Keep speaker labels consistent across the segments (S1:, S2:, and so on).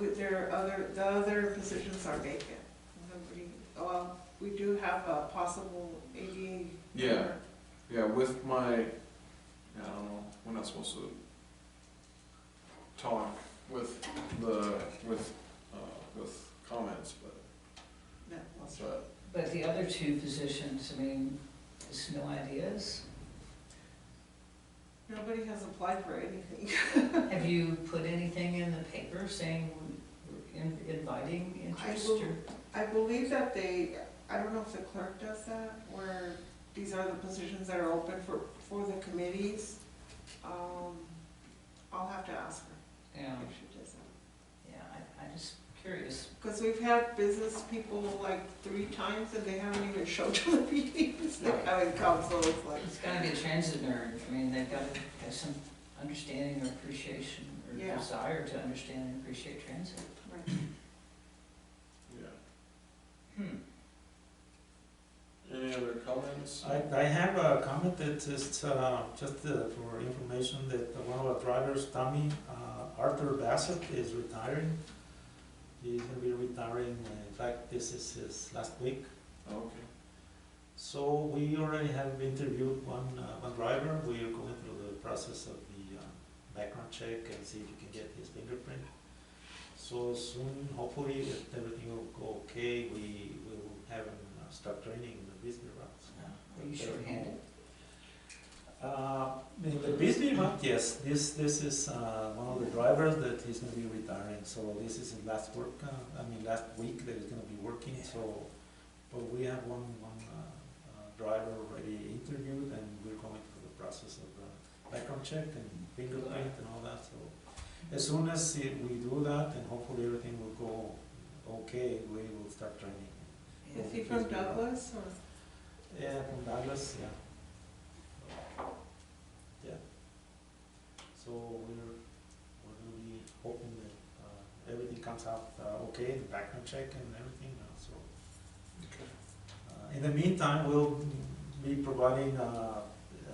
S1: with their other, the other positions are vacant. Nobody, well, we do have a possible ADA.
S2: Yeah.
S1: member.
S2: Yeah, with my, I don't know, we're not supposed to talk with the, with, uh, with comments, but, uh,
S1: That was-
S2: but,
S3: But the other two positions, I mean, just no ideas?
S1: Nobody has applied for anything.
S3: Have you put anything in the paper saying, we're in- inviting interest
S1: will-
S3: or?
S1: I believe that they, I don't know if the clerk does that, where these are the positions that are open for, for the committees. Um, I'll have to ask her
S3: Yeah,
S1: if she does that.
S3: yeah, I, I'm just curious.
S1: Because we've had business people like three times and they haven't even showed to the meetings.
S3: Right.
S1: I mean, council is like,
S3: It's gotta be a transit nerd, I mean, they've gotta have some understanding or appreciation or
S1: Yeah.
S3: desire to understand and appreciate transit.
S1: right.
S2: yeah.
S3: Hmm.
S2: Any other comments?
S4: I, I have a comment that is, uh, just uh, for information, that one of our drivers, Tommy, uh, Arthur Bassett, is retiring. He's gonna be retiring, uh, in fact, this is his last week.
S2: Okay,
S4: So we already have interviewed one, uh, one driver, we are going through the process of the, uh, background check and see if we can get his fingerprint. So soon, hopefully, if everything will go okay, we will have him uh, start training in the business routes.
S3: Are you shorthanded?
S4: Uh, in the Bisbee one, yes, this, this is, uh, one of the drivers that he's gonna be retiring, so this is his last work, uh, I mean, last week that he's gonna be working, so. But we have one, one, uh, uh, driver already interviewed and we're going through the process of, uh, background check and fingerprint and all that, so. As soon as i- we do that and hopefully everything will go okay, we will start training.
S3: Yeah.
S1: Is he from Douglas or?
S4: Yeah, from Douglas, yeah. Yeah. So we're, we're gonna be hoping that, uh, everything comes out, uh, okay, the background check and everything, uh, so. Uh, in the meantime, we'll be providing, uh, uh,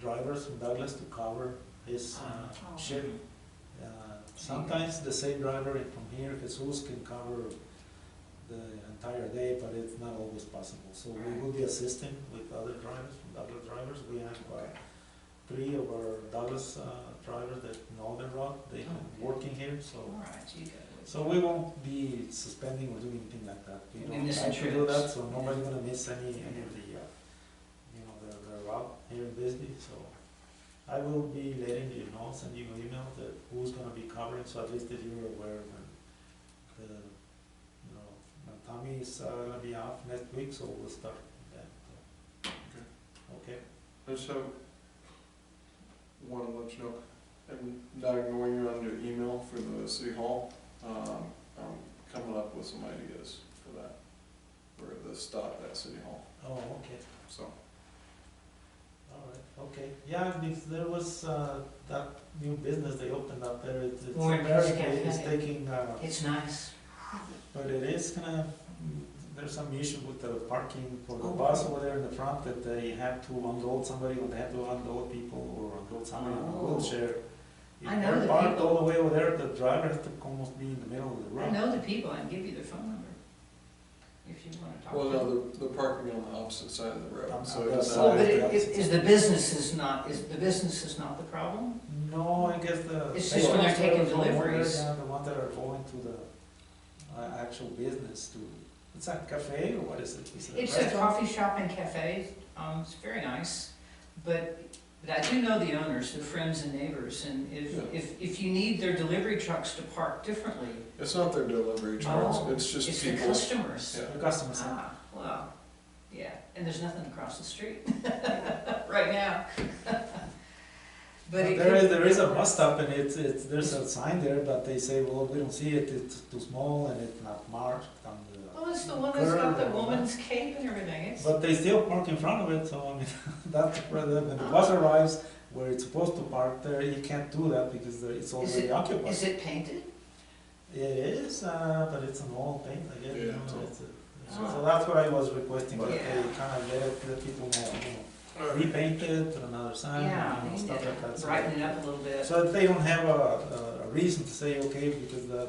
S4: drivers from Douglas to cover his, uh,
S1: Oh.
S4: shift. Uh, Sometimes the same driver from here, Jesus, can cover the entire day, but it's not always possible. So we will be assisting with other drivers, with other drivers. We have uh, three of our Douglas uh, drivers that know the route, they've been working here, so.
S3: All right, you got it.
S4: So we won't be suspending or doing anything like that. We
S3: We'll be
S4: don't
S3: missing
S4: have to do that,
S3: trips.
S4: so nobody's gonna miss any, any of the, uh, you know, the, the route here in Bisbee, so. I will be letting you know, send you an email that who's gonna be covering, so at least that you're aware when the, you know, when Tommy is uh, gonna be off next week, so we'll start then. Okay,
S2: I just have, wanna let you know, I'm not ignoring you on your email for the city hall. Um, I'm coming up with some ideas for that, for the stop at city hall,
S4: oh, okay.
S2: so.
S4: All right, okay, yeah, because there was, uh, that new business they opened up there, it's, it's
S3: Orange
S4: American, it's
S3: Cafe.
S4: taking, uh,
S3: It's nice.
S4: but it is gonna, there's some issue with the parking for the
S3: Oh.
S4: bus over there in the front, that they have to unload somebody, or they have to unload people, or unload somebody in a
S3: Oh.
S4: wheelchair. If
S3: I know
S4: they're
S3: the
S4: parked
S3: people.
S4: all the way over there, the driver has to almost be in the middle of the
S3: I
S4: road.
S3: know the people, I can give you their phone number if you wanna talk to
S2: Well,
S3: them.
S2: no, the, the parking on the opposite side of the
S4: On
S2: road,
S4: the
S2: so
S4: other
S2: it's
S4: side.
S3: Oh,
S2: not.
S3: but it- is, is the business is not, is, the business is not the problem?
S4: No, I guess the.
S3: It's just when they're taking deliveries.
S4: Yeah, the ones that are going to the uh, actual business to, it's a cafe or what is it? Is it
S3: It's a
S4: restaurant?
S3: coffee shop and cafe, um, it's very nice, but, but I do know the owners, the friends and neighbors, and if,
S2: Yeah.
S3: if, if you need their delivery trucks to park differently,
S2: It's not their delivery trucks,
S3: Oh,
S2: it's
S3: it's
S2: just
S3: the
S2: people.
S3: customers.
S2: Yeah.
S4: The customer center.
S3: Ah, well, yeah, and there's nothing across the street right now. But it
S4: There
S3: could-
S4: is, there is a bus stop and it's, it's, there's a sign there, but they say, well, we don't see it, it's too small and it's not marked on the.
S3: Well, it's the one that's got the
S4: Curve.
S3: woman's cape and everything, it's,
S4: But they still park in front of it, so I mean, that's where the, when the
S3: Ah.
S4: bus arrives, where it's supposed to park there, you can't do that because there- it's already occupied.
S3: is it painted?
S4: It is, uh, but it's an old thing, I guess, you
S2: Yeah.
S4: know, it's a-
S3: Ah.
S4: so that's what I was requesting, that they
S3: Yeah.
S4: kind of let it, let people know, you know,
S2: Alright.
S4: repaint it, put another sign,
S3: Yeah,
S4: you know,
S3: painted,
S4: stuff like that. so-
S3: brighten it up a little bit.
S4: So that they don't have a, a- a reason to say, okay, because the